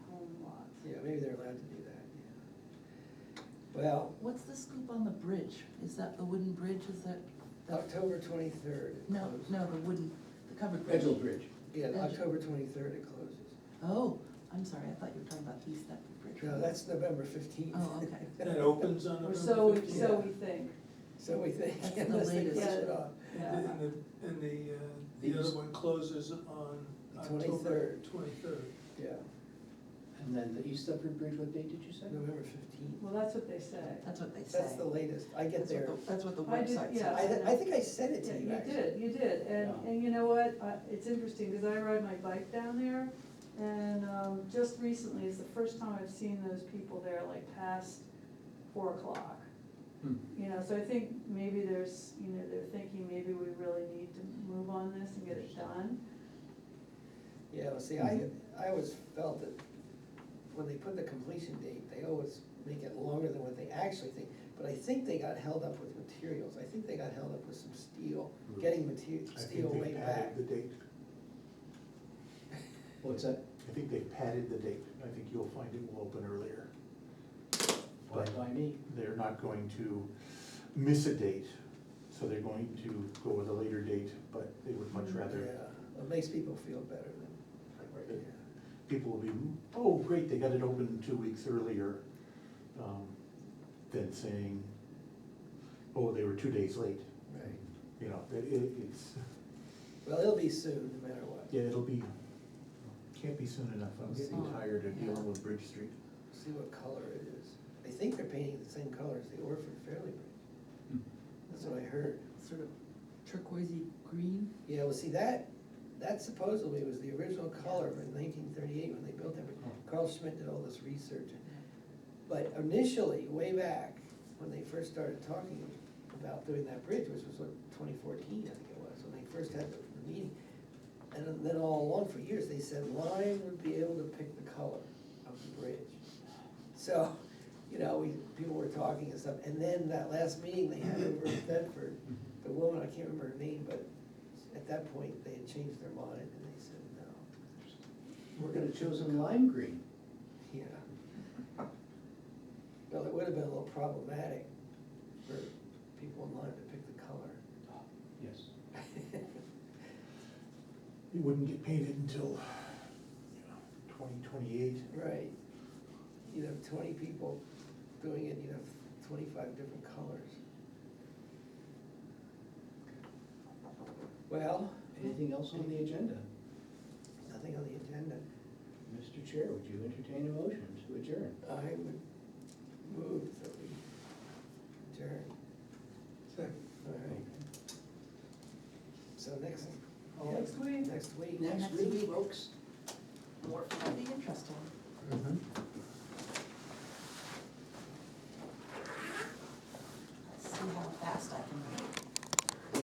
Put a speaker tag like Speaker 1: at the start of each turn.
Speaker 1: Well,
Speaker 2: What's the scoop on the bridge? Is that the wooden bridge, is that? the-
Speaker 1: October twenty-third.
Speaker 2: No, no, the wooden, the covered bridge.
Speaker 3: Edgel Bridge.
Speaker 1: Yeah,
Speaker 2: Edgel.
Speaker 1: October twenty-third it closes.
Speaker 2: Oh, I'm sorry, I thought you were talking about the East Deptford Bridge.
Speaker 1: No, that's November fifteenth.
Speaker 2: Oh, okay.
Speaker 3: That opens on
Speaker 4: Or
Speaker 3: November
Speaker 4: so, uh, we-
Speaker 3: fifteenth.
Speaker 4: so we think.
Speaker 1: So we think,
Speaker 2: That's the
Speaker 1: unless they push
Speaker 2: latest.
Speaker 1: it off.
Speaker 4: Yeah.
Speaker 3: And the, and the, uh, the other one closes on October
Speaker 1: 23rd.
Speaker 3: twenty-third.
Speaker 1: Yeah,
Speaker 5: And then the East Upper Bridge, what date did you say?
Speaker 1: November fifteenth.
Speaker 4: Well, that's what they say.
Speaker 2: That's what they say.
Speaker 1: That's the latest. I get
Speaker 2: uh, That's what
Speaker 1: there.
Speaker 2: the- That's what the
Speaker 4: I did-
Speaker 2: website
Speaker 4: yeah.
Speaker 1: I,
Speaker 2: says.
Speaker 1: I think I said it
Speaker 4: Yeah,
Speaker 1: to you
Speaker 4: You
Speaker 1: actually.
Speaker 4: did, you did, and,
Speaker 5: Yeah.
Speaker 4: and you know what, I- it's interesting, because I ride my bike down there, and um, just recently is the first time I've seen those people there like past four o'clock.
Speaker 5: Hmm.
Speaker 4: You know, so I think maybe there's, you know, they're thinking maybe we really need to move on this and get it done.
Speaker 1: Yeah, well, see, I, I always felt that when they put the completion date, they always make it longer than what they actually think. But I think they got held up with materials, I think they got held up with some steel, getting material,
Speaker 6: Hmm. I
Speaker 1: steel
Speaker 6: think
Speaker 1: way
Speaker 6: they
Speaker 1: back.
Speaker 6: padded the date.
Speaker 5: What's that?
Speaker 6: I think they padded the date. I think you'll find it will open earlier.
Speaker 5: By,
Speaker 6: But-
Speaker 5: by me.
Speaker 6: They're not going to miss a date, so they're going to go with a later date, but they would much
Speaker 1: Mm, Yeah,
Speaker 6: rather,
Speaker 1: it makes people feel better than, like, right here.
Speaker 6: people will be, oh, great, they got it open two weeks earlier, um, than saying, oh, they were two days late.
Speaker 1: Right.
Speaker 6: You know, it, it- it's,
Speaker 1: Well, it'll be soon, no matter what.
Speaker 6: yeah, it'll be, can't be soon enough. I'm getting
Speaker 2: Oh,
Speaker 6: tired of
Speaker 2: yeah.
Speaker 6: dealing with Bridge Street.
Speaker 1: See what color it is. I think they're painting the same color as the Orford Fairleigh Bridge. That's what I heard.
Speaker 2: Sort of turquoisey green.
Speaker 1: Yeah, well, see, that, that supposedly was the original color in nineteen thirty-eight when they built that. bridge. Carl Schmidt did all this research. But initially, way back, when they first started talking about doing that bridge, which was like twenty fourteen, I think it was, when they first had the the meeting. And then all along for years, they said Lime would be able to pick the color of the bridge. So, you know, we, people were talking and stuff, and then that last meeting they had over in Bedford,
Speaker 5: Mm-hmm.
Speaker 1: the woman, I can't remember her name, but at that point, they had changed their mind and they said, no,
Speaker 5: We're gonna chosen lime green.
Speaker 1: yeah. Well, it would have been a little problematic for people in line to pick the color.
Speaker 5: Yes.
Speaker 6: It wouldn't get painted until, you know, twenty twenty-eight.
Speaker 1: Right. You'd have twenty people doing it, you'd have twenty-five different colors. Well,
Speaker 5: Anything else on the agenda?
Speaker 1: nothing on the agenda.
Speaker 5: Mr. Chair, would you entertain a motion to adjourn?
Speaker 1: I would move that we adjourn.
Speaker 3: Second.
Speaker 1: All right. So next,
Speaker 4: Next week,
Speaker 1: next week.
Speaker 2: Next week.
Speaker 5: folks.
Speaker 2: More, that'd be interesting.
Speaker 6: Mm-hmm.